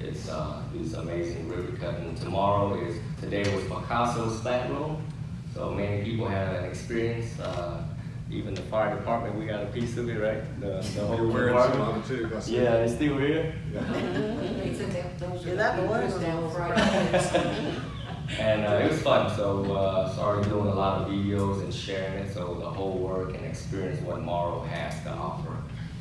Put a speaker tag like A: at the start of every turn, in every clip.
A: It's, uh, these amazing ribbon cutting. Tomorrow is, today was Picasso's slat room. So many people have an experience, uh, even the fire department, we got a piece of it, right? The, the whole
B: You're wearing some
A: department.
B: of it too, I see.
A: Yeah, it's still here.
C: Yeah, that the one was down Friday.
A: And uh, it was fun, so uh, started doing a lot of videos and sharing it so the whole world can experience what Morrow has to offer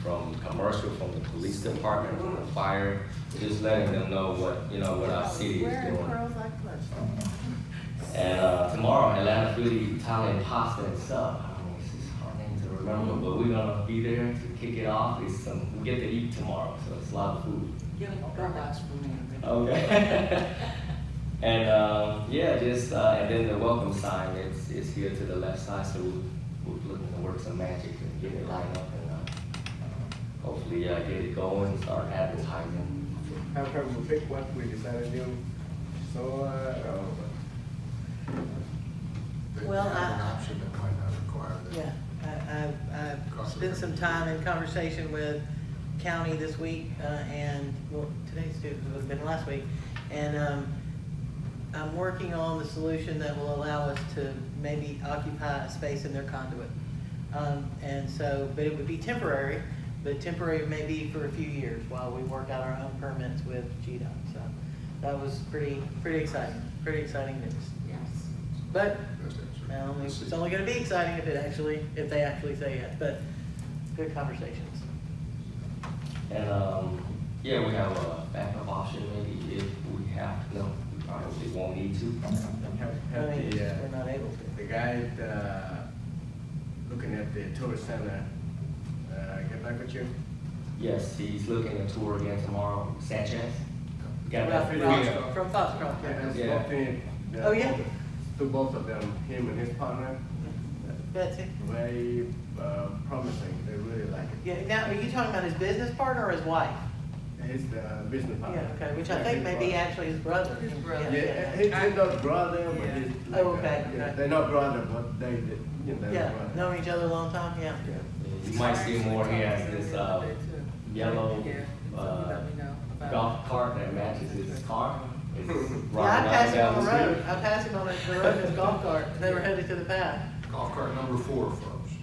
A: from commercial, from the police department, from the fire, just letting them know what, you know, what our city is
C: Wearing
A: doing.
C: pearls like clutch.
A: And uh, tomorrow, Atlanta Philly Italian pasta and stuff. I don't know, it's just hard name to remember, but we're gonna be there to kick it off. It's some, we get to eat tomorrow, so it's a lot of food. Okay. and um, yeah, just uh, and then the welcome sign is is here to the left side, so we're, we're looking to work some magic and get it lined up and uh, hopefully uh, get it going, start advertising.
D: How come we pick what we decided to do? So, uh,
B: They
C: Well,
B: have
C: I-
B: An option that might not require that.
C: Yeah, I, I, I've spent some time in conversation with county this week, uh, and, well, today's due, it would've been last week. And, um, I'm working on the solution that will allow us to maybe occupy a space in their conduit. Um, and so, but it would be temporary, but temporary maybe for a few years while we work out our own permits with GDOT. So that was pretty, pretty exciting, pretty exciting news. Yes. But
B: That's the answer.
C: well,
B: Let's
C: it's
B: see.
C: only gonna be exciting if it actually, if they actually say yes, but good conversations.
A: And um, yeah, we have a backup option maybe if we have no, we probably won't need to.
E: Have,
C: I
E: have
C: mean,
E: the,
C: we're
E: uh,
C: not able to.
E: the guy, uh, looking at the tourist center, uh, get back with you?
A: Yes, he's looking to tour again tomorrow. Sanchez. Got
C: Ralph-
A: that
C: Ralph-
A: video.
C: From Foxcroft,
E: Yeah,
C: yeah.
E: I
A: Yeah.
E: spoke to him. the-
C: Oh, yeah?
E: To both of them, him and his partner,
C: Betsy,
E: very, uh, promising, they really like it.
C: yeah, now, are you talking about his business partner or his wife?
E: His, uh, business partner.
C: Yeah, okay, which I think may be actually his brother. His brother.
E: Yeah, he's not brother, but he's.
C: Yeah.
E: like,
C: Oh,
E: uh,
C: okay,
E: yeah,
C: okay.
E: They're not brother, but they, they- you know, they're
C: Yeah,
E: brother.
C: known each other a long time, yeah.
E: Yeah.
A: You might see more. He has this uh, yellow uh, golf cart that matches his car. It's riding
C: Yeah, I
A: up and
C: passed him
A: down
C: on the
A: street.
C: road, I passed him on the road in his golf cart, they were headed to the path.
B: Golf cart number four, folks.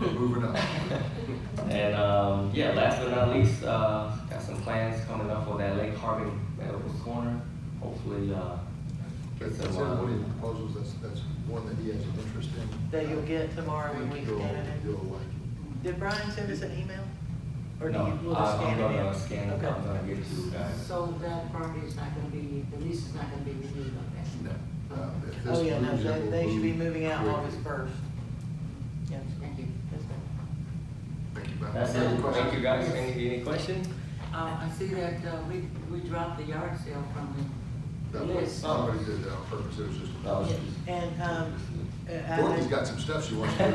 B: We're Moving up.
A: And um, yeah, last but not least, uh, got some plans coming up for that Lake Harbin Medical Corner. Hopefully, uh, get
B: That's
A: some.
B: one of the
A: Uh,
B: proposals, that's, that's one that he has an interest in.
C: That you'll get
B: I
C: tomorrow when
B: think
C: we
B: you'll-
C: scan it in.
B: You'll like it.
C: Did Brian send us an email? Or do
A: no,
C: you, will
A: I-
C: just scan it
A: I'm
C: in?
A: gonna scan it.
C: Okay.
A: I'm gonna get to you guys.
F: So that property is not gonna be, the lease is not gonna be renewed on that?
B: No. Uh, if this
C: Oh, yeah, no,
B: moves, it
C: they,
B: will
C: they should be
B: move
C: moving out
B: quickly.
C: August first. Yes,
F: Thank you.
C: yes, ma'am.
B: Thank you, Bob.
A: That's
B: Any
A: it.
B: questions?
A: Thank you guys. Any, any questions?
F: Uh, I see that, uh, we, we dropped the yard sale from the
B: That was,
F: list.
B: somebody did that on purpose, it was just.
A: That was-
C: And, um, uh,
B: Dorothy's
C: I-
B: got some stuff she wants to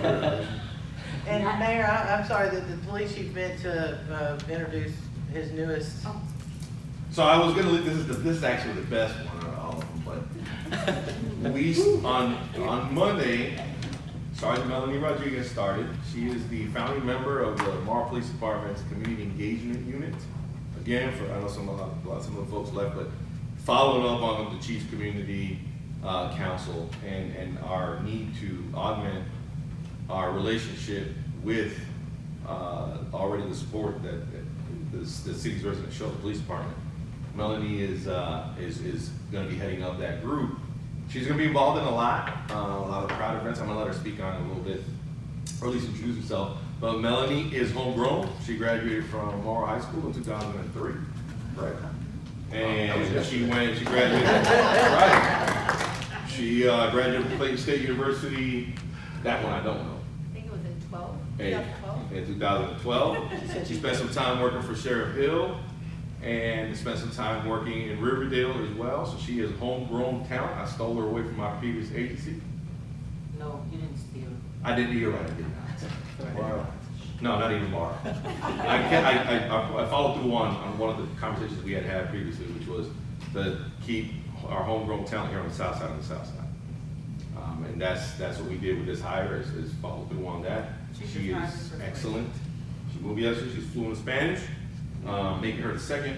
B: do.
C: and Mayor, I, I'm sorry that the police chief meant to, uh, introduce his newest.
F: Oh,
G: So I was gonna, leave- this is, the this is actually the best one out of all of them, but we, s- on, on Monday, Sergeant Melanie Rodriguez started. She is the founding member of the Marl Police Department's Community Engagement Unit. Again, for, I know some, a lot, a lot- some of the folks left, but following up on the Chiefs Community, uh, Council and, and our need to augment our relationship with, uh, already the support that, that the, the city's residents show the police department. Melanie is, uh, is, is gonna be heading up that group. She's gonna be involved in a lot, uh, a lot of crowd events. I'm gonna let her speak on it a little bit, or at least introduce herself. But Melanie is homegrown. She graduated from Morrow High School in two thousand and three. Right.
B: That was
G: And she
B: yesterday.
G: went, she graduated, right. She, uh, graduated from Clayton State University. That one I don't know.
H: I think it was in twelve.
G: Hey, in 2012. She spent some time working for Sheriff Hill and spent some time working in Riverdale as well. So she is homegrown talent. I stole her away from my previous agency.
F: No, you didn't steal.
G: I didn't, you're right, I did not. I did not. No, not even Mara. I can I, I- I, I followed through on, on one of the conversations we had had previously, which was to keep our homegrown talent here on the south side and the south side. Um, and that's, that's what we did with this hire, is, is follow through on that.
F: She's
G: She
F: retired
G: is
F: from-
G: excellent. She will be excellent, she's fluent in Spanish, um, making her the second